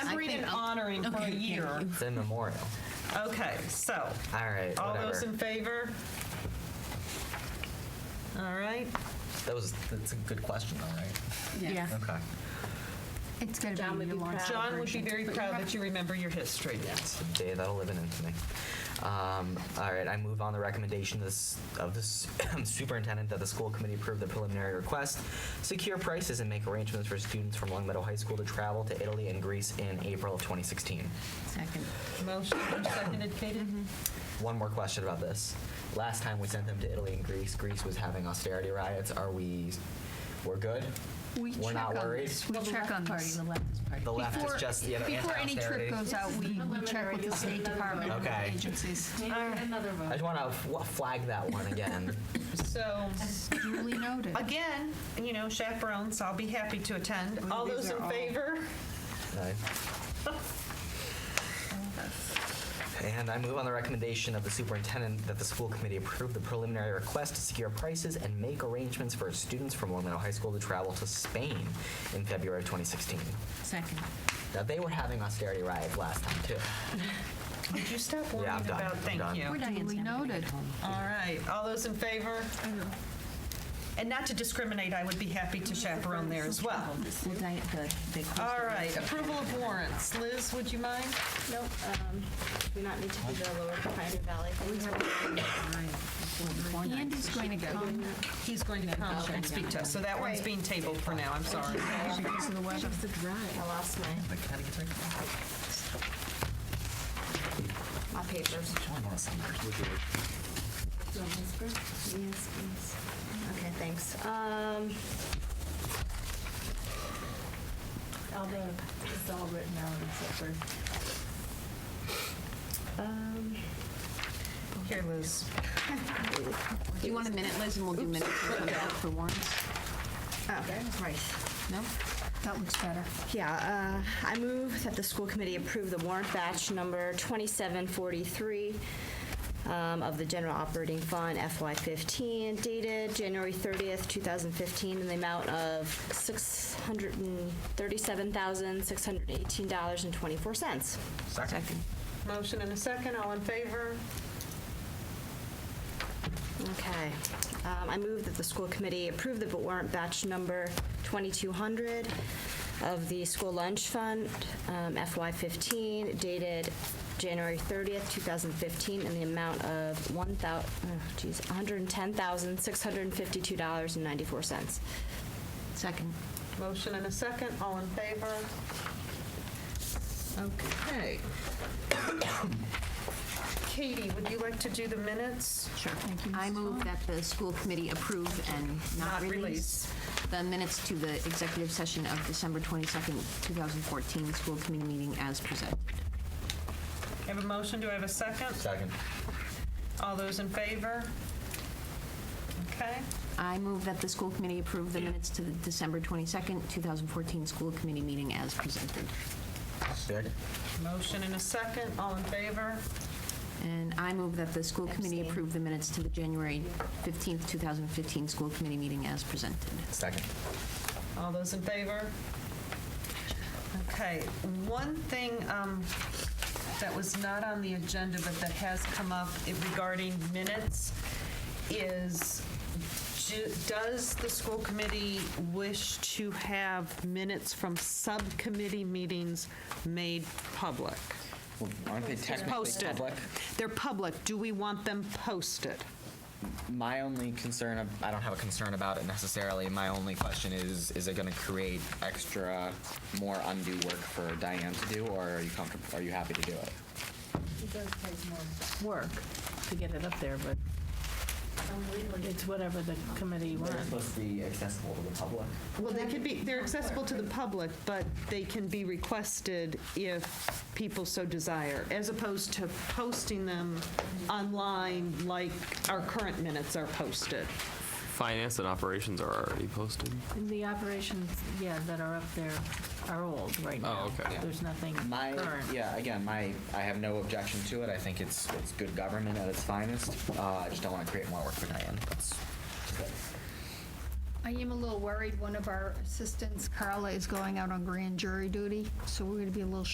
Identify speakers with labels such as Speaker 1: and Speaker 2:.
Speaker 1: been honoring for a
Speaker 2: Okay, thank
Speaker 1: year.
Speaker 2: you.
Speaker 3: It's immemorial.
Speaker 1: Okay, so,
Speaker 3: All right,
Speaker 1: all
Speaker 3: whatever.
Speaker 1: those in favor? All right,
Speaker 3: that was that's a good question though, right?
Speaker 2: Yeah.
Speaker 3: Okay.
Speaker 2: It's going to
Speaker 4: John
Speaker 2: be
Speaker 4: would
Speaker 2: the
Speaker 4: be
Speaker 2: Lawrence.
Speaker 4: proud.
Speaker 1: John would be very proud that you remember your history.
Speaker 3: Yes, Jay, that'll live in infamy. Um, all right, I move on the recommendation of this- of the s- superintendent that the school committee approve the preliminary request, secure prices, and make arrangements for students from Long Meadow High School to travel to Italy and Greece in April of 2016.
Speaker 2: Second.
Speaker 1: Motion seconded, Katie?
Speaker 2: Mm-hmm.
Speaker 3: One more question about this. Last time we sent them to Italy and Greece, Greece was having austerity riots. Are we, we're good?
Speaker 2: We
Speaker 3: We're
Speaker 2: check
Speaker 3: not
Speaker 2: on
Speaker 3: worried?
Speaker 2: this. We
Speaker 4: The
Speaker 2: check
Speaker 4: left
Speaker 2: on
Speaker 4: party,
Speaker 2: this.
Speaker 4: the leftist party.
Speaker 3: The left
Speaker 2: Before-
Speaker 3: is just the
Speaker 2: Before any trip
Speaker 3: anti-austerity.
Speaker 2: goes out, we we check with the State Department and
Speaker 3: Okay.
Speaker 2: other agencies.
Speaker 4: Take Another
Speaker 3: I just
Speaker 4: vote.
Speaker 3: want to flag that one again.
Speaker 1: So,
Speaker 2: Duly noted.
Speaker 1: again, you know, chaperones, I'll be happy to attend. All
Speaker 2: these
Speaker 1: those
Speaker 2: are
Speaker 1: in
Speaker 2: all-
Speaker 1: favor?
Speaker 3: Aye. And I move on the recommendation of the superintendent that the school committee approve the preliminary request to secure prices and make arrangements for students from Orlando High School to travel to Spain in February of 2016.
Speaker 2: Second.
Speaker 3: Now, they were having austerity riots last time, too.
Speaker 1: Would you stop
Speaker 3: Yeah, I'm
Speaker 1: worrying
Speaker 3: done.
Speaker 1: about,
Speaker 3: I'm
Speaker 1: thank
Speaker 3: done.
Speaker 1: you.
Speaker 2: We're duly noted.
Speaker 1: All right, all those in favor? And not to discriminate, I would be happy to chaperone there as well.
Speaker 2: We'll diet the big question.
Speaker 1: All right, approval of warrants. Liz, would you mind?
Speaker 4: Nope, um, do not need to do the Lower Pioneer Valley.
Speaker 2: Andy's going to come.
Speaker 1: He's going to come and speak to us, so that one's being tabled for now, I'm sorry.
Speaker 2: Because of the weather.
Speaker 4: I lost my, my papers. Yes, please. Okay, thanks. Um, all the, it's all written out except for. Um,
Speaker 1: Here, Liz.
Speaker 5: Do you want a minute, Liz, and we'll do minutes and come back for warrants?
Speaker 4: oh, right.
Speaker 2: No? That looks better.
Speaker 4: Yeah, uh, I move that the school committee approve the warrant batch number 2743 um, of the general operating fund FY15 dated January 30th, 2015, in the amount of $637,618.24.
Speaker 3: Second.
Speaker 1: Motion and a second, all in favor?
Speaker 4: Okay. Um, I move that the school committee approve the warrant batch number 2200 of the school lunch fund um, FY15 dated January 30th, 2015, in the amount of one thou- oh, geez, $110,652.94.
Speaker 5: Second.
Speaker 1: Motion and a second, all in favor? Okay. Katie, would you like to do the minutes?
Speaker 5: Sure. Thank you. I move that the school committee approve and
Speaker 1: Not
Speaker 5: not
Speaker 1: release.
Speaker 5: release the minutes to the executive session of December 22nd, 2014, school committee meeting as presented.
Speaker 1: I have a motion, do I have a second?
Speaker 3: Second.
Speaker 1: All those in favor? Okay,
Speaker 5: I move that the school committee approve the minutes to the December 22nd, 2014, school committee meeting as presented.
Speaker 3: Second.
Speaker 1: motion and a second, all in favor?
Speaker 5: And I move that the school committee
Speaker 4: Abstain.
Speaker 5: approve the minutes to the January 15th, 2015, school committee meeting as presented.
Speaker 3: Second.
Speaker 1: All those in favor? Okay, one thing um, that was not on the agenda, but that has come up i- regarding minutes, is ju- does the school committee wish to have minutes from subcommittee meetings made public?
Speaker 6: Well, Aren't they technically
Speaker 1: Posted.
Speaker 6: public?
Speaker 1: They're public, do we want them posted?
Speaker 3: My only concern, ab- I don't have a concern about it necessarily. My only question is, is it going to create extra, more undue work for Diane to do, or are you comfortable, are you happy to do it?
Speaker 7: It does take more work to get it up there, but it's whatever the committee wants.
Speaker 3: supposed to be accessible to the public.
Speaker 1: Well, they could be, they're accessible to the public, but they can be requested if people so desire, as opposed to posting them online like our current minutes are posted.
Speaker 8: Finance and operations are already posted.
Speaker 7: And the operations, yeah, that are up there are old right now.
Speaker 8: Oh, okay.
Speaker 7: There's nothing
Speaker 6: My,
Speaker 7: current.
Speaker 6: yeah, again, my, I have no objection to it. I think it's, it's good government at its finest. Uh, I just don't want to create more work for Diane. That's
Speaker 2: I am a little worried. One of our assistants, Carla, is going out on grand jury duty, so we're going to be a little